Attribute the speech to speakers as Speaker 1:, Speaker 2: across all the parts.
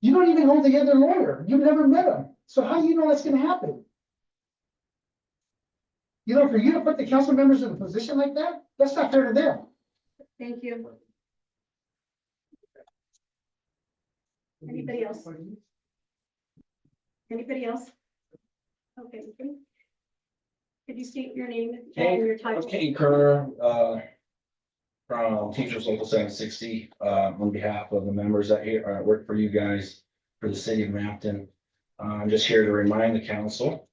Speaker 1: You don't even know the other lawyer. You've never met him. So how do you know that's gonna happen? You know, for you to put the council members in a position like that, that's not fair to them.
Speaker 2: Thank you. Anybody else? Anybody else? Okay. Could you state your name and your title?
Speaker 3: Kate Kerr, uh, from Teachers Local seven sixty, uh, on behalf of the members that here, uh, work for you guys, for the city of Mapton. Uh, I'm just here to remind the council,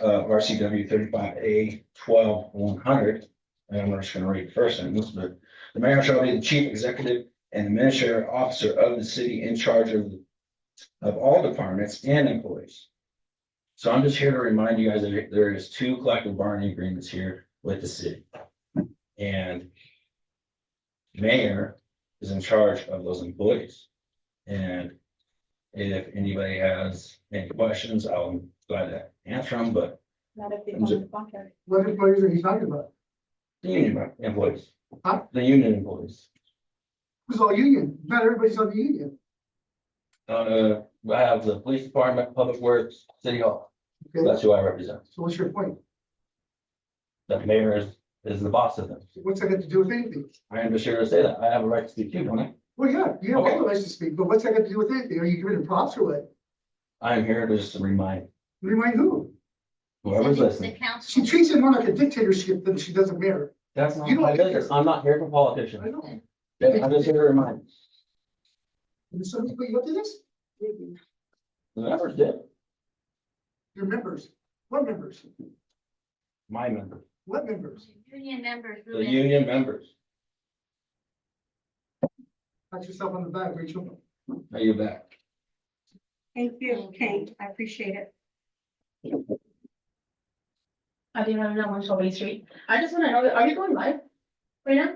Speaker 3: uh, RCW thirty-five A twelve one hundred. And I'm just gonna read first sentence, but the mayor shall be the chief executive and administrative officer of the city in charge of, of all departments and employees. So I'm just here to remind you guys that there- there is two collective bargaining agreements here with the city. And mayor is in charge of those employees. And if anybody has any questions, I'll glad to answer them, but
Speaker 2: Not if they want to walk out.
Speaker 1: What employees are you talking about?
Speaker 3: the union employees,
Speaker 1: Huh?
Speaker 3: the union employees.
Speaker 1: Who's all union? Not everybody's on the union.
Speaker 3: Uh, I have the police department, public works, city hall.
Speaker 1: Okay.
Speaker 3: That's who I represent.
Speaker 1: So what's your point?
Speaker 3: The mayor is, is the boss of them.
Speaker 1: What's that got to do with anything?
Speaker 3: I am just here to say that. I have a right to speak too, don't I?
Speaker 1: Well, yeah, you have all the rights to speak, but what's that got to do with anything? Are you giving them props or what?
Speaker 3: I am here to just remind
Speaker 1: Remind who?
Speaker 3: whoever's
Speaker 4: The
Speaker 3: listening.
Speaker 1: She
Speaker 4: council,
Speaker 1: treats it more like a dictatorship than she does a mayor.
Speaker 3: That's not
Speaker 1: You don't
Speaker 3: my
Speaker 1: care.
Speaker 3: business. I'm not here for
Speaker 1: I
Speaker 3: politicians.
Speaker 1: know.
Speaker 3: I'm just here to remind.
Speaker 1: Did somebody put you up to this?
Speaker 3: The members did.
Speaker 1: Your members. What members?
Speaker 3: My members.
Speaker 1: What members?
Speaker 4: union members.
Speaker 3: The union members.
Speaker 1: Pat yourself on the back, Rachel.
Speaker 3: Are you back?
Speaker 2: Thank you, Kate. I appreciate it.
Speaker 5: I didn't know one Shelby Street. I just wanna know, are you going live right now?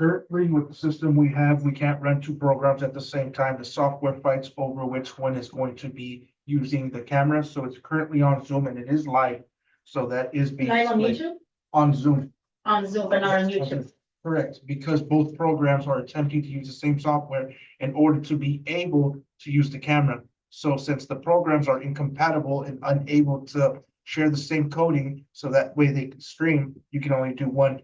Speaker 6: Currently, with the system we have, we can't run two programs at the same time. The software fights over which one is going to be using the camera, so it's currently on Zoom and it is live. So that is being
Speaker 5: Live on
Speaker 6: displayed
Speaker 5: YouTube?
Speaker 6: on Zoom.
Speaker 5: On Zoom, but not on YouTube.
Speaker 6: Correct, because both programs are attempting to use the same software in order to be able to use the camera. So since the programs are incompatible and unable to share the same coding, so that way they can stream, you can only do one.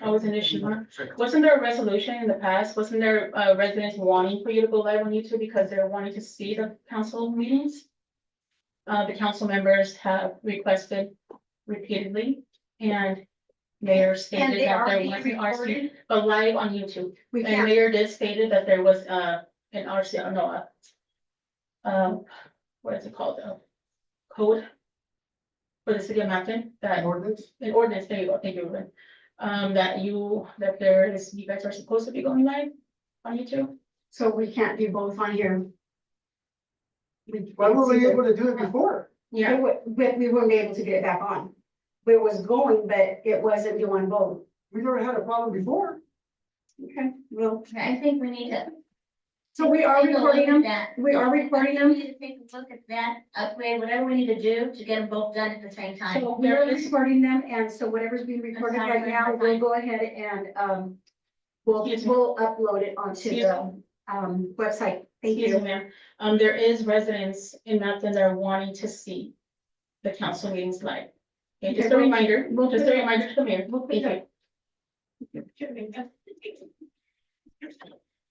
Speaker 5: That was an issue, huh? Wasn't there a resolution in the past? Wasn't there uh residents wanting for you to go live on YouTube because they're wanting to see the council meetings? Uh, the council members have requested repeatedly and mayor
Speaker 4: And
Speaker 5: stated
Speaker 4: they
Speaker 5: that
Speaker 4: are
Speaker 5: there
Speaker 4: being
Speaker 5: was an RC,
Speaker 4: recorded.
Speaker 5: but live on YouTube.
Speaker 2: We
Speaker 5: And
Speaker 2: can't,
Speaker 5: mayor did stated that there was uh an RC, uh, no, uh. Um, what is it called, uh, code? For the city of Mountain, that
Speaker 1: Ordinance?
Speaker 5: an ordinance, there you go, thank you, Ruben. Um, that you, that there is, you guys are supposed to be going live on YouTube.
Speaker 2: so we can't do both on here. We-
Speaker 1: Why were we able to do it before?
Speaker 2: It wa- But we weren't able to get it back on. It was going, but it wasn't doing both.
Speaker 1: We never had a problem before.
Speaker 2: Okay, well,
Speaker 4: I think we need to.
Speaker 2: so we are
Speaker 4: take a look
Speaker 2: recording them.
Speaker 4: at that.
Speaker 2: We are recording them.
Speaker 4: We need to take a look at that, upgrade, whatever we need to do to get them both done at the same time.
Speaker 5: So
Speaker 2: We
Speaker 5: there
Speaker 2: are
Speaker 5: is,
Speaker 2: recording them, and so whatever's being recorded
Speaker 4: sorry,
Speaker 2: right now,
Speaker 4: I'm
Speaker 2: we'll
Speaker 4: fine.
Speaker 2: go ahead and, um, we'll,
Speaker 5: Excuse me.
Speaker 2: we'll upload it onto
Speaker 5: Excuse
Speaker 2: the, um, website. Thank
Speaker 5: excuse me,
Speaker 2: you.
Speaker 5: ma'am, um, there is residents in Mountain that are wanting to see the council meetings live. Okay, just a
Speaker 2: Okay.
Speaker 5: reminder,
Speaker 2: We'll
Speaker 5: just a
Speaker 2: put it-
Speaker 5: reminder to the mayor.
Speaker 2: we'll put
Speaker 5: Thank
Speaker 2: it-
Speaker 5: you.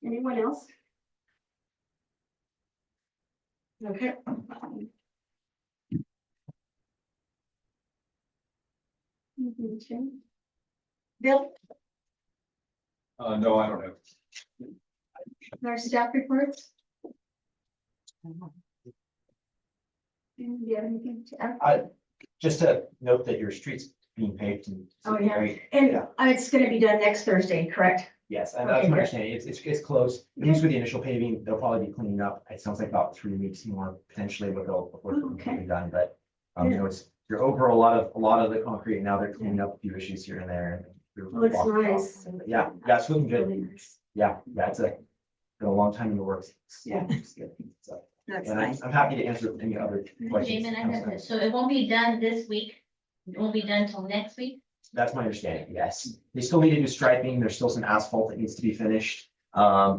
Speaker 2: Anyone else? Okay. Bill,
Speaker 3: Uh, no, I don't know.
Speaker 2: our staff reports? Do you have anything to add?
Speaker 7: just to note that your street's being paved and.
Speaker 2: Oh, yeah.
Speaker 7: Right.
Speaker 2: And
Speaker 7: Yeah.
Speaker 2: uh, it's gonna be done next Thursday, correct?
Speaker 7: Yes, and that's my understanding. It's, it's, it's close, at least with the initial paving, they'll probably be cleaning up. It sounds like about three weeks more potentially what they'll, before
Speaker 2: Oh,
Speaker 7: it's
Speaker 2: okay.
Speaker 7: completely done, but. Um, you know, it's, you're over a lot of, a lot of the concrete now. They're cleaning up a few issues here and there. and
Speaker 2: Looks nice.
Speaker 7: Yeah, yeah, it's looking good.
Speaker 2: Really nice.
Speaker 7: Yeah, yeah, it's a, been a long time in the works.
Speaker 2: Yeah.
Speaker 7: It's good. So,
Speaker 2: That's
Speaker 7: And I'm,
Speaker 2: nice.
Speaker 7: I'm happy to answer any other questions.
Speaker 4: Jamin, I have this. So it won't be done this week. It won't be done till next week.
Speaker 7: That's my understanding, yes. They still need to do striping. There's still some asphalt that needs to be finished. Um,